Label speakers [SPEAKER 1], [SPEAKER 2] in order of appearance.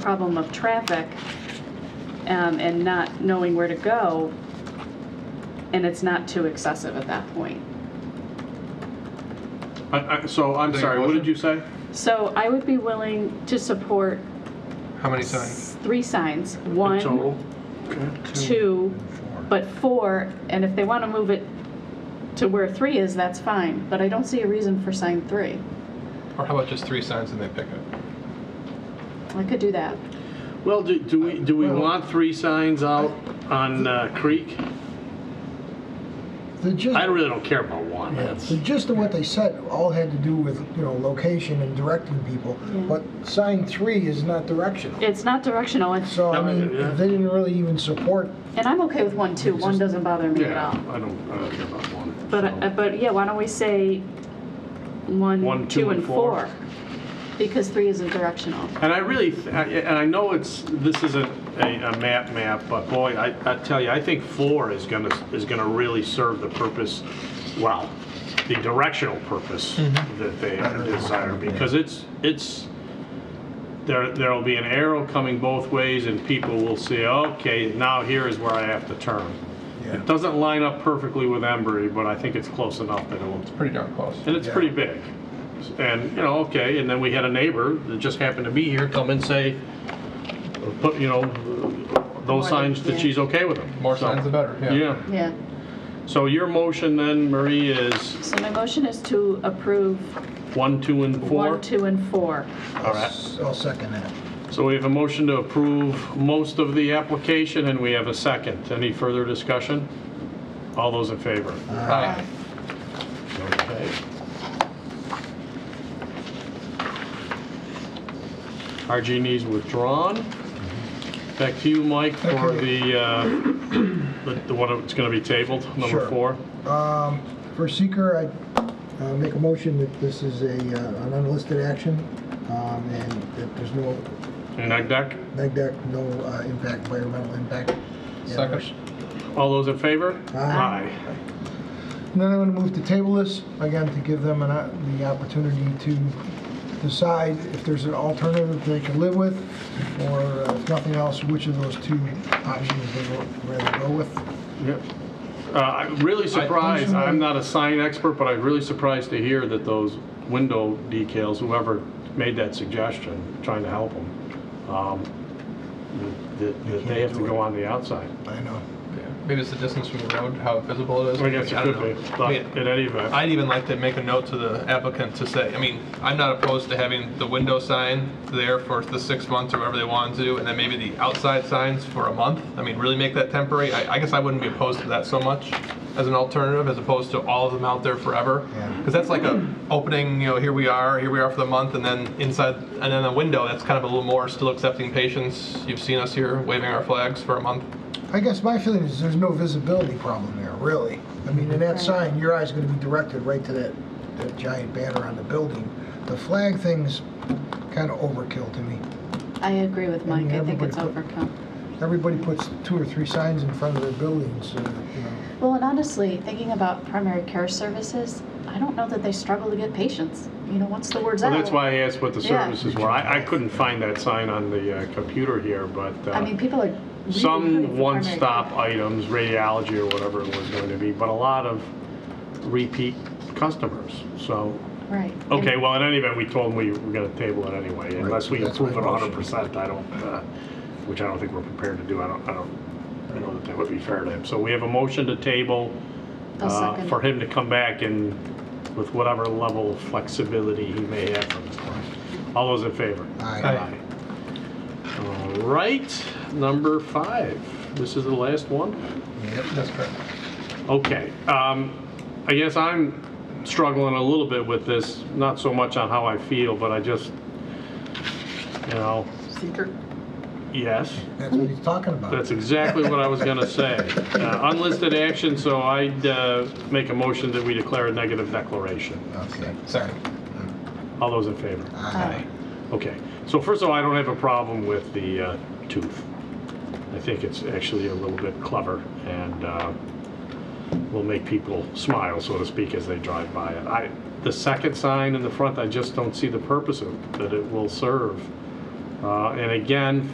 [SPEAKER 1] problem of traffic um, and not knowing where to go, and it's not too excessive at that point.
[SPEAKER 2] I- I- So I'm
[SPEAKER 3] Take a
[SPEAKER 2] sorry, what
[SPEAKER 3] motion?
[SPEAKER 2] did you say?
[SPEAKER 1] So I would be willing to support
[SPEAKER 3] How many
[SPEAKER 1] s-
[SPEAKER 3] signs?
[SPEAKER 1] three signs,
[SPEAKER 2] In total?
[SPEAKER 1] one, two, but four, and if they want to move it to where three is, that's fine, but I don't see a reason for sign three.
[SPEAKER 3] Or how about just three signs and they pick it?
[SPEAKER 1] I could do that.
[SPEAKER 2] Well, do do we, do we
[SPEAKER 4] Well-
[SPEAKER 2] want three signs out on uh, Creek?
[SPEAKER 4] The gist,
[SPEAKER 2] I really don't care about one.
[SPEAKER 4] yeah,
[SPEAKER 2] That's,
[SPEAKER 4] the gist of what they said all had to do with, you know, location and directing people. But sign three is not directional.
[SPEAKER 1] It's not directional, and
[SPEAKER 4] So, I mean,
[SPEAKER 2] Yeah.
[SPEAKER 4] they didn't really even support,
[SPEAKER 1] and I'm okay with one, too. One doesn't bother me at
[SPEAKER 2] yeah,
[SPEAKER 1] all.
[SPEAKER 2] I don't, I don't care about one.
[SPEAKER 1] But,
[SPEAKER 2] so.
[SPEAKER 1] uh, but yeah, why don't we say one, two, and four? Because three isn't directional.
[SPEAKER 2] And I really, th- I- and I know it's, this isn't a, a map map, but boy, I, I tell you, I think four is gonna, is gonna really serve the purpose, well, the directional purpose that they desire, because it's, it's, there, there'll be an arrow coming both ways and people will see, okay, now here is where I have to turn. It doesn't line up perfectly with Embry, but I think it's close enough that it will
[SPEAKER 3] Pretty darn close.
[SPEAKER 2] and it's pretty big. And, you know, okay, and then we had a neighbor that just happened to be here come and say, or put, you know, those signs
[SPEAKER 1] yeah.
[SPEAKER 2] that she's okay with them.
[SPEAKER 3] More
[SPEAKER 2] So-
[SPEAKER 3] signs the better, yeah.
[SPEAKER 2] Yeah,
[SPEAKER 1] Yeah.
[SPEAKER 2] so your motion then, Marie, is
[SPEAKER 1] So my motion is to approve
[SPEAKER 2] one, two, and four?
[SPEAKER 1] one, two, and four.
[SPEAKER 2] All right,
[SPEAKER 4] I'll second that.
[SPEAKER 2] so we have a motion to approve most of the application, and we have a second. Any further discussion? All those in favor?
[SPEAKER 3] Aye.
[SPEAKER 2] Okay. RG needs withdrawn. Back to you, Mike, for
[SPEAKER 4] Okay.
[SPEAKER 2] the, uh, the the one that's going to be tabled, number
[SPEAKER 4] Sure.
[SPEAKER 2] four.
[SPEAKER 4] Um, For seeker, I uh, make a motion that this is a, uh, an unlisted action, um, and that there's no
[SPEAKER 2] And neg deck,
[SPEAKER 4] neg deck, no uh, impact, environmental impact.
[SPEAKER 3] Second.
[SPEAKER 2] all those in favor?
[SPEAKER 4] Aye. And then I'm going to move to table this, again, to give them an o- the opportunity to decide if there's an alternative they can live with, or uh, if nothing else, which of those two options they would rather go with.
[SPEAKER 2] Yep. Uh, I'm really surprised, I'm not a sign expert, but I'm really surprised to hear that those window decals, whoever made that suggestion, trying to help them, um, that that- that they have to go on the outside.
[SPEAKER 4] I know.
[SPEAKER 3] Yeah. Maybe it's the distance from the road, how visible it is.
[SPEAKER 2] I guess it
[SPEAKER 3] mean,
[SPEAKER 2] could
[SPEAKER 3] don't
[SPEAKER 2] be,
[SPEAKER 3] know.
[SPEAKER 2] but
[SPEAKER 3] I mean,
[SPEAKER 2] in any event.
[SPEAKER 3] I'd even like to make a note to the applicant to say, I mean, I'm not opposed to having the window sign there for the six months or whatever they want to, and then maybe the outside signs for a month. I mean, really make that temporary. I, I guess I wouldn't be opposed to that so much as an alternative, as opposed to all of them out there forever.
[SPEAKER 4] Yeah.
[SPEAKER 3] Because that's like a opening, you know, here we are, here we are for the month, and then inside, and then a window, that's kind of a little more still accepting patients. You've seen us here waving our flags for a month.
[SPEAKER 4] I guess my feeling is there's no visibility problem there, really. I mean, in that sign, your eye's gonna be directed right to that, that giant banner on the building. The flag thing's kinda overkill to me.
[SPEAKER 1] I agree with Mike. I think it's
[SPEAKER 4] Everybody
[SPEAKER 1] overcome.
[SPEAKER 4] Everybody puts two or three signs in front of their buildings, uh, you know.
[SPEAKER 1] Well, and honestly, thinking about primary care services, I don't know that they struggle to get patients. You know, once the word's
[SPEAKER 2] Well,
[SPEAKER 1] out.
[SPEAKER 2] that's why I asked what the
[SPEAKER 1] Yeah.
[SPEAKER 2] services were. I, I couldn't find that sign on the uh, computer here, but uh,
[SPEAKER 1] I mean, people are really hurting
[SPEAKER 2] some
[SPEAKER 1] for
[SPEAKER 2] one-stop
[SPEAKER 1] primary
[SPEAKER 2] items, radiology or whatever it was going to be, but a lot of repeat customers. So,
[SPEAKER 1] care. Right. And-
[SPEAKER 2] okay, well, in any event, we told them we were going to table it anyway, unless we
[SPEAKER 4] that's my
[SPEAKER 2] approve it
[SPEAKER 4] motion.
[SPEAKER 2] 100%. I don't, uh, which I don't think we're prepared to do. I don't, I don't I know that that would be fair to him. So we have a motion to table
[SPEAKER 1] I'll
[SPEAKER 2] uh,
[SPEAKER 1] second.
[SPEAKER 2] for him to come back and with whatever level of flexibility he may have from this point. All those in favor?
[SPEAKER 4] Aye.
[SPEAKER 2] All right, number five. This is the last one?
[SPEAKER 3] Yep, that's correct.
[SPEAKER 2] Okay. um, I guess I'm struggling a little bit with this, not so much on how I feel, but I just, you know,
[SPEAKER 1] Seeker.
[SPEAKER 2] yes.
[SPEAKER 4] That's what he's talking about.
[SPEAKER 2] That's exactly what I was going to say. Uh, Unlisted action, so I'd uh, make a motion that we declare a negative declaration.
[SPEAKER 4] Okay.
[SPEAKER 3] Second.
[SPEAKER 2] All those in favor?
[SPEAKER 4] Aye.
[SPEAKER 2] Okay. So first of all, I don't have a problem with the uh, tooth. I think it's actually a little bit clever and uh, will make people smile, so to speak, as they drive by it. I, the second sign in the front, I just don't see the purpose of, that it will serve Uh, And again,